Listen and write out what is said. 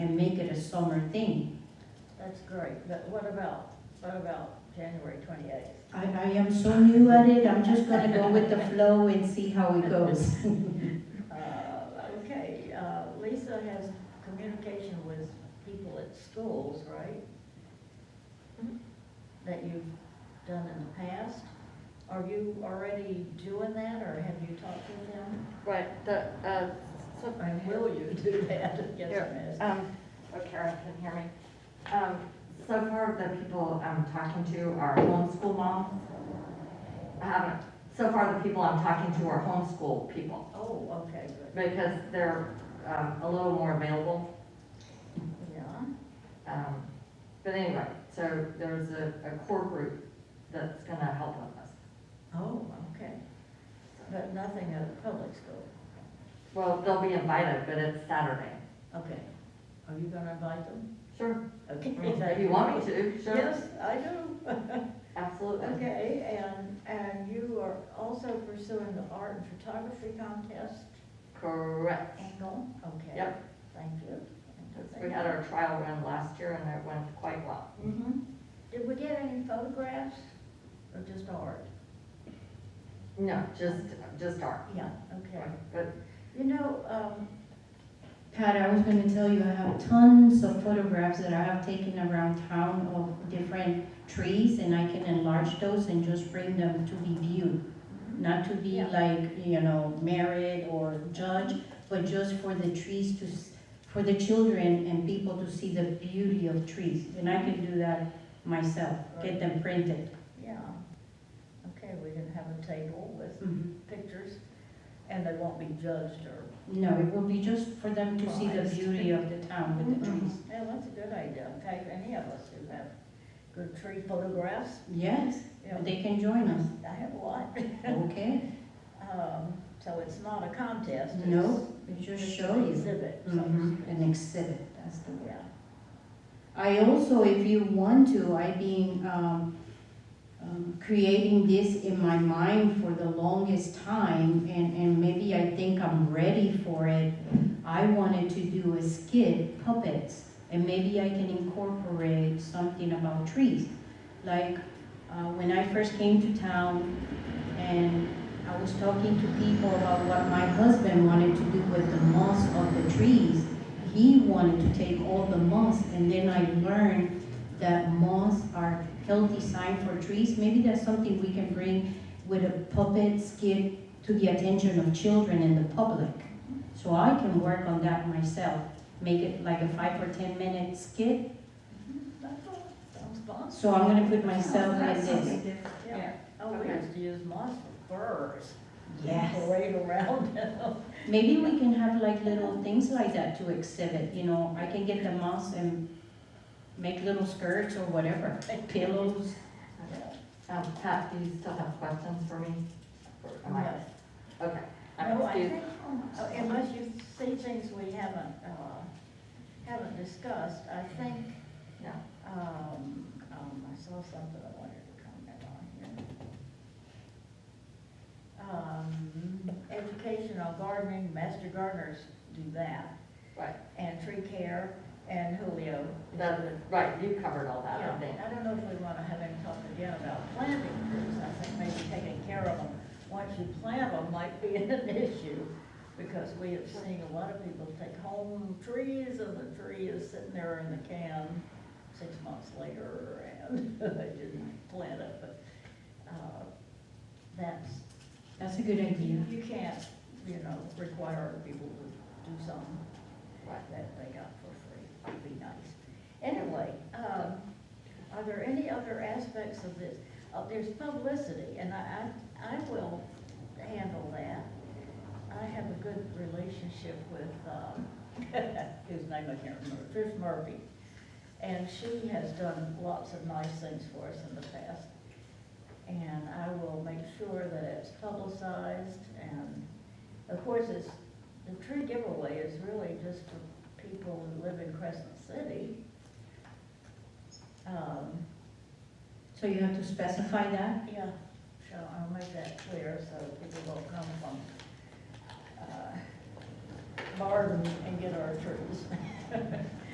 make it a summer thing. That's great, but what about, what about January twenty-eighth? I, I am so new at it, I'm just gonna go with the flow and see how it goes. Okay, uh, Lisa has communication with people at schools, right? Mm-hmm. Mhm. That you've done in the past? Are you already doing that, or have you talked to them? Right, the, uh, so, And will you do that? Yes, Here. ma'am. um, oh, Kara can hear me. Um, so far, the people I'm talking to are homeschool moms. Um, so far, the people I'm talking to are homeschool people Oh, okay, good, because they're, um, a little more available. yeah. Um, but anyway, so there's a, a core group that's gonna help with us. Oh, okay. But nothing at the public school. Well, they'll be invited, but it's Saturday. Okay. Are you gonna invite them? Sure. Okay. If you want me to, sure, Yes, I do. absolutely. Okay, and, and you are also pursuing the art and photography contest Correct. angle? Okay. Yep. Thank you. We had our trial run last year and it went quite well. hmm Did we get any photographs or just art? No, just, just art. Yeah, okay. But You know, um, Pat, I was gonna tell you, I have tons of photographs that I have taken around town of different trees, and I can enlarge those and just bring them to be viewed. Not to be Yeah. like, you know, married or judged, but just for the trees to, s- for the children and people to see the beauty of trees. And I can do that myself, get them printed. yeah. Okay, we didn't have a table with Mhm. pictures, and they won't be judged or. No, it will be just for them to see the Prized. beauty of the town with the trees. Yeah, that's a good idea, in fact, any of us who have good tree photographs, Yes, you know, they can join us, I have a lot. okay? Um, so it's not a contest. it's- No, it just It's show an you. exhibit, so, Mhm, An exhibit, that's the word. yeah, I also, if you want to, I've been um, um, creating this in my mind for the longest time, and, and maybe I think I'm ready for it. I wanted to do a skit, puppets, and maybe I can incorporate something about trees. Like, uh, when I first came to town, and I was talking to people about what my husband wanted to do with the moss of the trees. He wanted to take all the moss, and then I learned that moss are healthy sign for trees. Maybe that's something we can bring with a puppet skit to the attention of children and the public. So I can work on that myself, make it like a five or ten minute skit. that's all, sounds fun. So I'm gonna put myself in That's this. something different. Yeah, oh, we Okay. used to use moss for furs. Yes. Parade around them. Maybe we can have like little things like that to exhibit, you know, I can get the moss and make little skirts or whatever, pillows. Yeah. Um, Pat, do you still have questions for me? Or am I- Yes. Okay. I'm No, I excused. think, oh, unless you see things we haven't, uh, haven't discussed, I think, Yeah. um, um, I saw something I wanted to comment on here. Um, educational gardening, master gardeners do that, Right, and tree care, and Julio. that, right, you covered all that, Yeah, I think. I don't know if we wanna have any talk again about planting trees, I think maybe taking care of them, once you plant them might be an issue, because we have seen a lot of people take home trees, and the tree is sitting there in the can six months later, and they didn't plant it, but, uh, that's, That's a good idea. you you can't, you know, require people to do something Right. that they got for free, would be nice. Anyway, um, are there any other aspects of this? Uh, there's publicity, and I, I, I will handle that. I have a good relationship with, um, whose name I can't remember, Chris Murphy. And she has done lots of nice things for us in the past. And I will make sure that it's publicized and, of course, it's, the tree giveaway is really just for people who live in Crescent City. Um, So you have to specify that? yeah, so I'll make that clear so people will come from, uh, Barden and get our trees.